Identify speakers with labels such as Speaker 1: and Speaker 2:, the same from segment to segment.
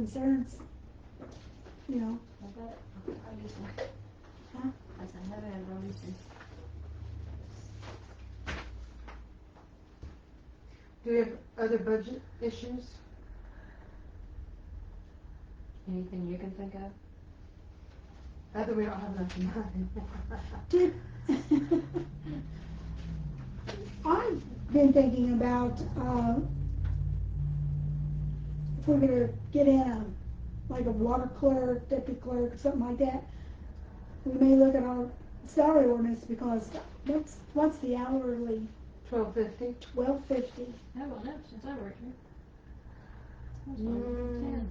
Speaker 1: concerns, you know,
Speaker 2: I bet, I used to.
Speaker 1: Huh?
Speaker 2: I said, I never had releases.
Speaker 3: Do we have other budget issues?
Speaker 2: Anything you can think of?
Speaker 3: Other, we don't have enough money.
Speaker 1: did, I've been thinking about, uh, if we're gonna get in a, like a water clerk, deputy clerk, something like that, we may look at our salary ordinance because that's, what's the hourly,
Speaker 3: Twelve fifty?
Speaker 1: twelve fifty?
Speaker 2: I haven't lived since I worked here. I was only
Speaker 3: Mm,
Speaker 2: ten.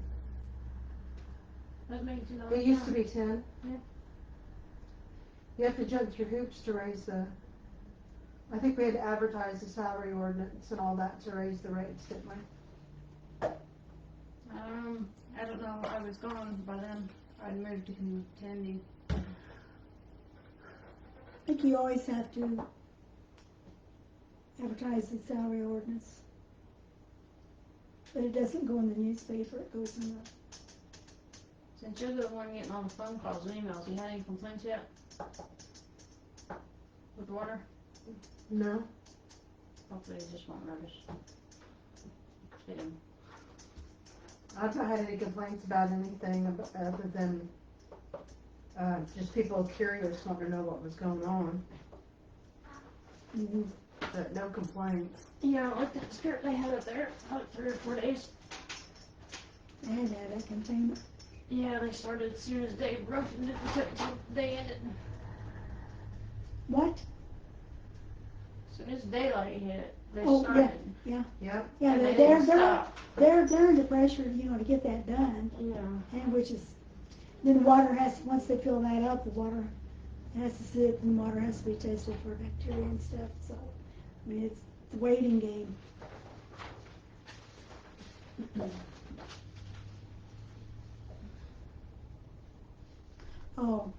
Speaker 2: That makes it all.
Speaker 3: it used to be ten.
Speaker 2: Yeah.
Speaker 3: You have to jump through hoops to raise the, I think we had to advertise the salary ordinance and all that to raise the rates, didn't we?
Speaker 2: Um, I don't know, I was gone by then, I'd moved to Kentucky.
Speaker 1: I think you always have to advertise the salary ordinance. But it doesn't go in the newspaper, it goes in the,
Speaker 2: Since you're the one getting all the phone calls and emails, you had any complaints yet? With water?
Speaker 3: No.
Speaker 2: Hopefully they just won't notice. Kidding.
Speaker 3: I've not had any complaints about anything ab- other than, uh, just people curious, wanting to know what was going on, but no complaints.
Speaker 2: Yeah, I like that skirt they had up there, like three or four days.
Speaker 1: and that containment.
Speaker 2: Yeah, they started as soon as they roasted it and took it till the day ended.
Speaker 1: What?
Speaker 2: As soon as daylight hit, they
Speaker 1: Oh, yeah.
Speaker 2: started.
Speaker 3: Yep,
Speaker 1: Yeah,
Speaker 2: and
Speaker 1: they're,
Speaker 2: they
Speaker 1: they're,
Speaker 2: didn't
Speaker 1: they're,
Speaker 2: stop.
Speaker 1: they're, they're under pressure, you know, to get that done,
Speaker 2: Yeah.
Speaker 1: and which is, then the water has, once they fill that up, the water has to sit, and the water has to be tested for bacteria and stuff, so, I mean, it's the waiting game. Oh.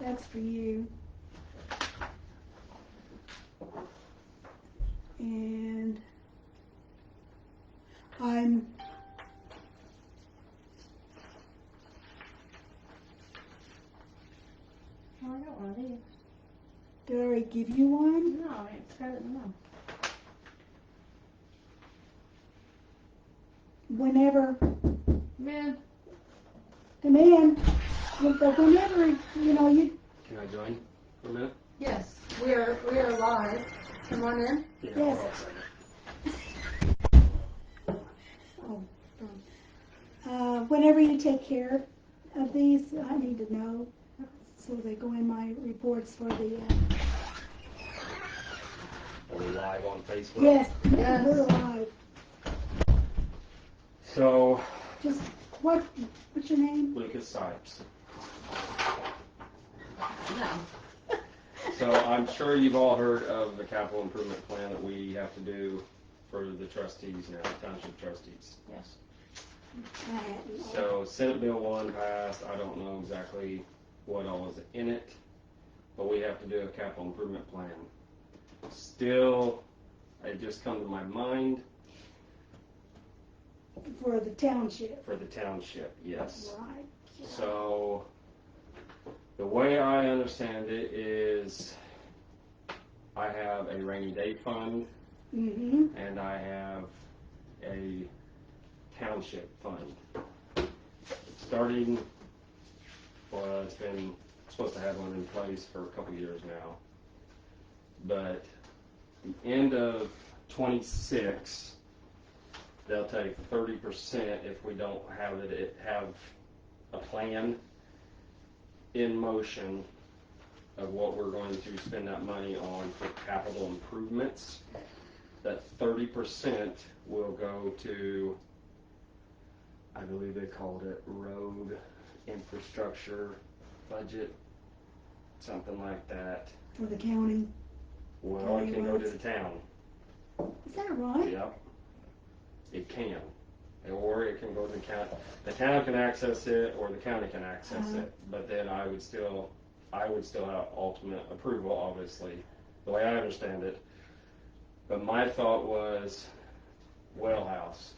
Speaker 1: That's for you. And I'm
Speaker 2: Well, I don't want to leave.
Speaker 1: Did I already give you one?
Speaker 2: No, I mean, it's better than none.
Speaker 1: Whenever,
Speaker 2: Man,
Speaker 1: come in. But whenever, you know, you,
Speaker 4: Can I join for a minute?
Speaker 3: yes, we are, we are live. Come on in.
Speaker 4: Yeah,
Speaker 1: Yes.
Speaker 4: we're all excited.
Speaker 1: uh, whenever you take care of these, I need to know. So they go in my reports for the, uh,
Speaker 4: Are we live on Facebook?
Speaker 1: yes,
Speaker 3: Yes.
Speaker 1: we're alive.
Speaker 4: So,
Speaker 1: Just, what, what's your name?
Speaker 4: Lucas Sipes.
Speaker 2: no.
Speaker 4: So I'm sure you've all heard of the capital improvement plan that we have to do for the trustees now, township trustees.
Speaker 2: Yes.
Speaker 1: I hadn't.
Speaker 4: So Senate Bill one passed, I don't know exactly what all is in it, but we have to do a capital improvement plan. Still, it just come to my mind
Speaker 1: For the township.
Speaker 4: for the township, yes.
Speaker 1: Right.
Speaker 4: So, the way I understand it is, I have a rainy day fund
Speaker 1: Mm-hmm.
Speaker 4: and I have a township fund. Starting, well, it's been, supposed to have one in place for a couple years now. But the end of twenty-six, they'll take thirty percent if we don't have it, it, have a plan in motion of what we're going to spend that money on for capital improvements that thirty percent will go to, I believe they called it road infrastructure budget, something like that.
Speaker 1: For the county.
Speaker 4: Well, it can go to the town,
Speaker 1: Is that right?
Speaker 4: yep. It can, or it can go to the county, the town can access it, or the county can access
Speaker 1: Uh-huh.
Speaker 4: it, but then I would still, I would still have ultimate approval, obviously, the way I understand it. But my thought was, well house,